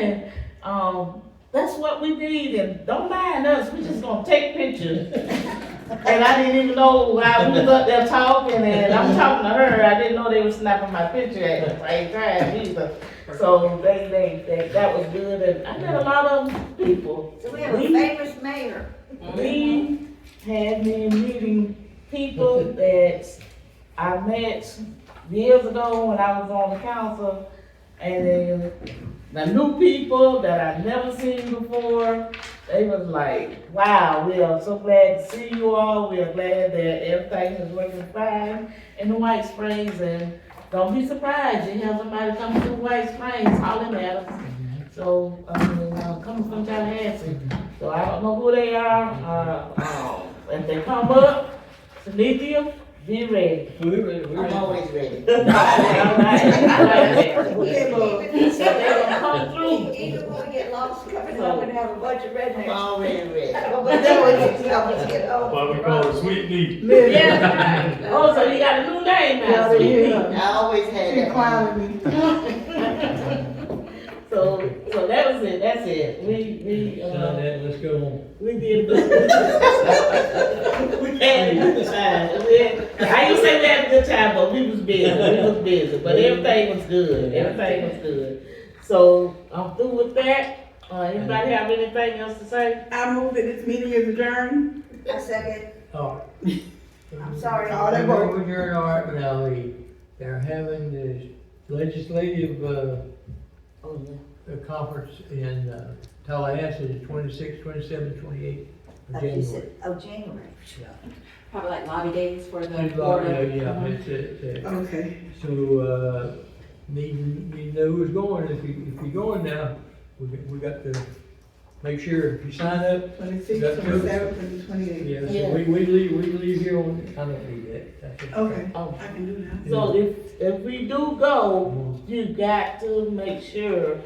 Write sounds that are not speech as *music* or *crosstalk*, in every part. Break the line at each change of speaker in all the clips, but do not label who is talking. saying, um, that's what we need, and don't mind us, we just gonna take
*laughs*
pictures. And I didn't even know, I was up there talking, and I'm talking to her, I didn't know they were snapping my picture at the same time either. So they, they, they, that was good, and I met a lot of people.
So we have a famous mayor.
We had been meeting people that I met years ago when I was on the council. And then the new people that I'd never seen before, they was like, wow, we are so glad to see you all. We are glad that everything is working fine in the White Springs. And don't be surprised, you have somebody come through White Springs hollering at us. So, I mean, uh, coming from Tallahassee. So I don't know who they are, uh, uh, if they come up, Cynthia, be ready. *laughs*
I'm always ready.
All right, all right. So they gonna
Either
come through.
one we get lost, coming home and have a bunch of I'm rednecks.
Already ready.
But when they always get old, get old.
Why we call it sweet meat.
Yeah, right. Oh, so you got a new name now, Cynthia.
I always had that.
So, so that was it, that's it. We, we,
Sign
uh,
that, let's go on.
we did. We had a good time. We had- I ain't say we had a good time, but we was busy, we was busy, but everything was good, everything was good. So, I'm through with that. Uh, anybody have anything else to say?
I move that this meeting is adjourned.
I second,
Oh.
I'm sorry.
All that work with your art, but I'll leave. They're having this legislative, uh,
Oh, yeah.
a conference in uh, Tallahassee, twenty-six, twenty-seven, twenty-eight of January.
Oh, January. *clears throat*
Probably like lobby days for the
It's
board
like,
of-
uh, Yeah, it's, it's, uh,
Okay.
So, uh, need, need to know who's going, if you, if you're going now, we, got- we got to make sure if you sign up.
Twenty-sixth, twenty-seventh, and twenty-eighth.
Yeah, so we, we leave, we leave here on, I don't need that. That's it.
Okay,
Oh.
I can do that.
So if, if we do go, you got to make sure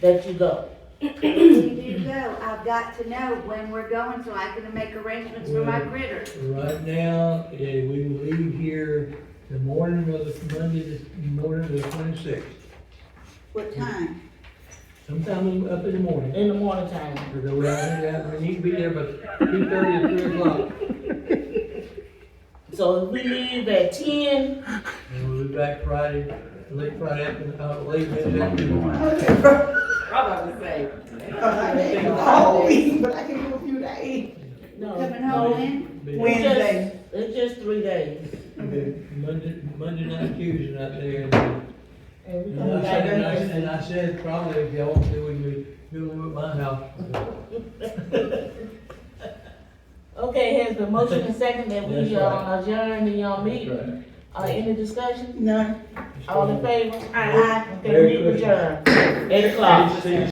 that you go.
If you do go, I've got to know when we're going so I can make arrangements for my critter.
Right now, eh, we will leave here the morning of the, Monday, the morning of the twenty-sixth,
What time?
sometime up in the morning.
In the morning time.
Because we, we need to be there by two thirty or three o'clock,
So if we leave at ten,
and we'll be back Friday, late Friday afternoon, uh, late Wednesday afternoon.
Probably say.
I can do all week, but I can do a few days.
no.
Coming home
no,
in,
Be-
it's just-
Wednesday.
It's just three days.
be Monday, Monday night, Tuesday night there, and
And we
I
come back.
said, and I- and I said, probably if y'all want to, do it, we do it at my house.
Okay, has been motion and second that we,
That's right.
uh, adjourn the, uh, meeting. Uh, any discussion?
None.
All in favor?
Aye.
Okay, meeting adjourned. Eight o'clock.
See you